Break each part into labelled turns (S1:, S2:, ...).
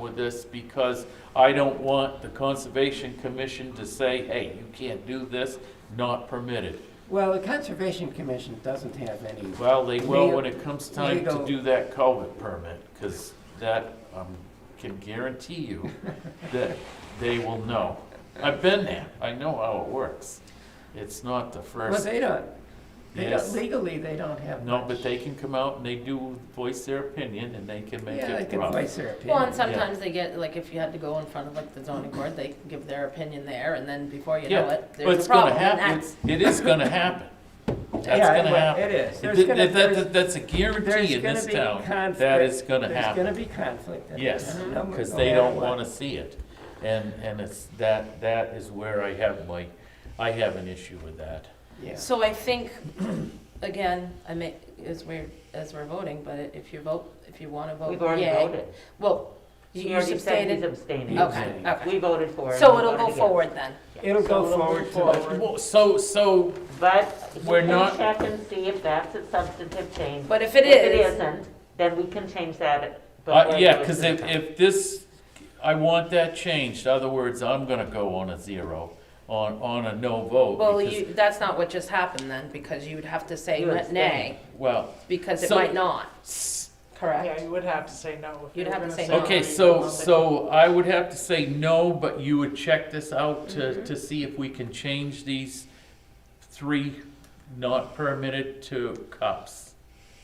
S1: with this because I don't want the Conservation Commission to say, hey, you can't do this, not permitted.
S2: Well, the Conservation Commission doesn't have any,
S1: Well, they will when it comes time to
S2: Legal-
S1: do that culvert permit, because that, um, can guarantee you that they will know. I've been there, I know how it works. It's not the
S2: well,
S1: first,
S2: they don't, they don't,
S1: yes.
S2: legally, they don't have
S1: No,
S2: much.
S1: but they can come out and they do voice their opinion and they can make
S2: Yeah, they
S1: it
S2: can
S1: rough.
S2: voice their
S3: Well,
S2: opinion.
S3: and sometimes they get, like, if you had to go in front of like the zoning board, they can give their opinion there, and then before you know
S1: Yeah,
S3: it,
S1: but
S3: there's
S1: it's
S3: a
S1: gonna
S3: problem, and
S1: happen,
S3: that's.
S1: it is gonna happen. That's
S2: Yeah,
S1: gonna
S2: well,
S1: happen.
S2: It is. There's
S1: Th-
S2: gonna-
S1: that-
S2: there's-
S1: that- That's a
S2: there's
S1: guarantee in
S2: gonna
S1: this
S2: be
S1: town, that
S2: conflict-
S1: is gonna happen.
S2: There's gonna be conflict. at the
S1: Yes,
S2: town, no-
S1: because
S2: no
S1: they
S2: matter
S1: don't
S2: what.
S1: want to see it. And, and it's, that, that is where I have my, I have an issue with that.
S2: Yeah.
S3: So I think, again, I may, as we're, as we're voting, but if you vote, if you wanna vote
S4: We've already
S3: yay.
S4: voted.
S3: Well,
S4: She
S3: you
S4: already said he's
S3: abstained,
S4: abstaining.
S3: okay,
S4: We
S3: okay.
S4: voted for it.
S3: So
S4: We
S3: it'll go
S4: voted
S3: forward then.
S4: against.
S2: It'll
S4: So
S2: go
S4: move
S2: forward to the-
S4: forward.
S1: Well, So, so,
S4: But you
S1: We're not-
S4: can check and see if that's a substantive change.
S3: But if it
S4: If it
S3: is-
S4: isn't, then we can change that. but
S1: uh,
S4: we're
S1: yeah,
S4: doing
S1: because if,
S4: this time.
S1: if this, I want that changed. Other words, I'm going to go on a zero, on, on a no vote.
S3: Well,
S1: because-
S3: you, that's not what just happened then, because you would have to say
S4: You abstained.
S3: nay,
S1: Well,
S3: because it
S1: So-
S3: might not,
S1: s-
S3: correct?
S5: Yeah, you would have to say no. if
S3: You'd
S5: they were
S3: have to
S5: gonna
S3: say no.
S1: okay, so, so I would have to say no, but you would check this out to, to see if we can change these three not permitted to cups.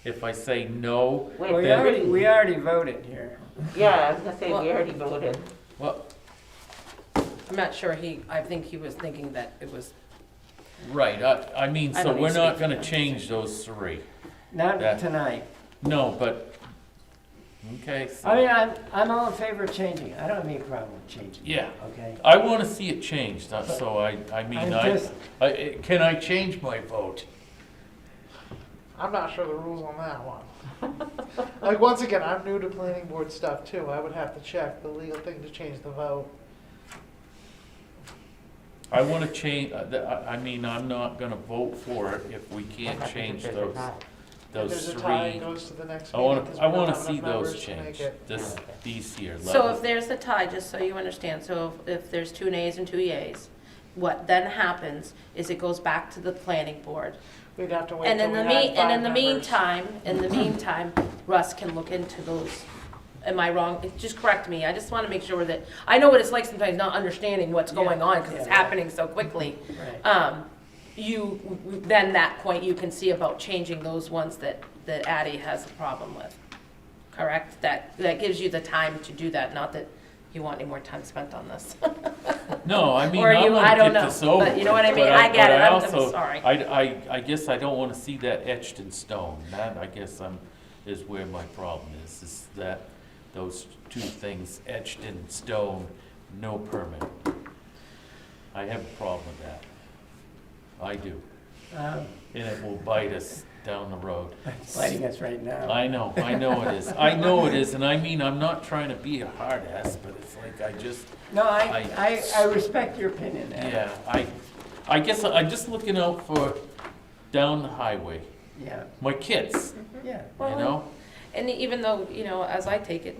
S1: If I say no,
S4: Wait,
S2: Well, We
S1: Then-
S2: already, we already voted here.
S4: Yeah, I was gonna say, we already voted.
S1: Well,
S3: I'm not sure he, I think he was thinking that it was,
S1: right, I, I mean,
S3: I
S1: so
S3: don't
S1: we're
S3: need
S1: not
S3: to
S1: gonna
S3: speak.
S1: change those three.
S2: Not
S1: That-
S2: tonight.
S1: No, but, okay, so.
S2: I mean, I'm, I'm all in favor of changing. I don't have any problem with changing. it,
S1: Yeah,
S2: Okay?
S1: I wanna see it changed, uh, so I, I mean,
S2: I'm
S1: I,
S2: just-
S1: I, can I change my vote?
S5: I'm not sure the rules on that one. Like, once again, I'm new to planning board stuff too. I would have to check the legal thing to change the vote.
S1: I wanna change, I, I mean, I'm not gonna vote for it if we can't
S4: Okay,
S1: change
S4: there's a
S1: those,
S4: tie.
S5: If
S1: those
S5: There's a tie, it
S1: three.
S5: goes to the next
S1: I
S5: meeting.
S1: wanna,
S5: 'cause we
S1: I
S5: don't
S1: wanna
S5: have
S1: see
S5: enough
S1: those
S5: members to make
S1: changed,
S5: it.
S1: this, these here
S3: so if
S1: levels.
S3: there's a tie, just so you understand, so if- if there's two nays and two yeas, what then happens is it goes back to the planning board.
S5: We'd have to wait
S3: And
S5: till
S3: in
S5: we
S3: the
S5: had
S3: mean, and in
S5: five
S3: the
S5: members.
S3: meantime, in the meantime, Russ can look into those. Am I wrong? Just correct me. I just want to make sure that, I know what it's like sometimes not understanding what's going on because it's
S2: Yeah.
S3: happening so quickly.
S2: Right.
S3: Um, you, then that point, you can see about changing those ones that, that Addie has a problem with. Correct? That, that gives you the time to do that, not that you want any more time spent on this.
S1: No, I mean,
S3: Or
S1: I
S3: you- I
S1: wanna get
S3: don't know,
S1: this over.
S3: but you know what I
S1: with,
S3: mean?
S1: but
S3: I get
S1: but
S3: it.
S1: I
S3: I'm- I'm
S1: also-
S3: sorry.
S1: I, I, I guess I don't wanna see that etched in stone, that, I guess I'm, is where my problem is, is that those two things etched in stone, no permit. I have a problem with that. I do,
S2: Um,
S1: and it will bite us down the road.
S2: It's Fighting us right now.
S1: I know, I know it is, I know it is, and I mean, I'm not trying to be a hard ass, but it's like, I just,
S2: No, I, I,
S1: I-
S2: I respect your opinion there.
S1: Yeah, I, I guess I'm just looking out for down the highway,
S2: Yeah,
S1: my kids,
S2: yeah.
S1: you
S3: Well,
S1: know?
S3: And even though, you know, as I take it,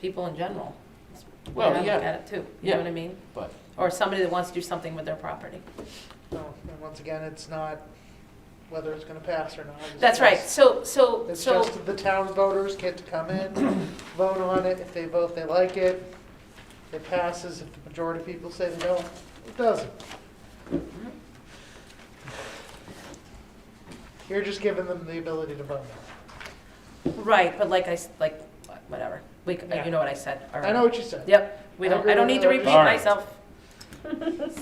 S3: people in general, it's the way
S1: Well,
S3: I look
S1: yeah.
S3: at it too, you
S1: Yeah.
S3: know what I mean?
S1: But,
S3: Or somebody that wants to do something with their property.
S5: No, And once again, it's not whether it's gonna pass or not. It's
S3: That's right,
S5: just-
S3: so, so,
S5: It's
S3: so,
S5: just the town voters get to come in, vote on it. If they vote they like it, it passes. If the majority of people say they don't, it doesn't. You're just giving them the ability to vote.
S3: right, but like I, s- like, whatever, we, c-
S5: Yeah.
S3: you know what I said, all
S5: I
S3: right.
S5: know what you said.
S3: Yep, we
S5: I
S3: don't,
S5: agree
S3: I don't
S5: with
S3: need to
S5: that.
S3: repeat
S1: All right.
S3: myself.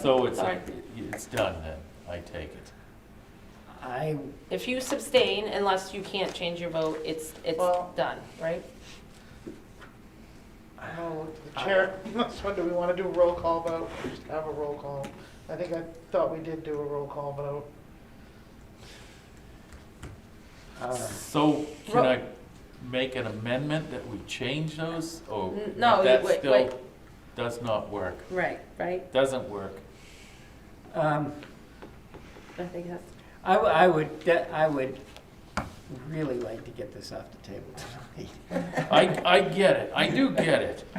S1: so it's,
S3: Sorry.
S1: it's done then, I take it.
S2: I,
S3: If you abstain, unless you can't change your vote, it's, it's
S5: Well-
S3: done, right?
S5: I'm gonna look to the chair. That's when do we want to do a roll call vote? Just have a roll call. I think I thought we did do a roll call vote.
S2: uh,
S1: So can
S3: Ro-
S1: I make an amendment that we change those, or
S3: N- no, you-
S1: that
S3: wait,
S1: still
S3: wait.
S1: does not work?
S3: Right, right,
S1: Doesn't work.
S2: um,
S3: I think that's.
S2: I, w- I would, de- I would really like to get this off the table tonight.
S1: I, I get it, I do get it,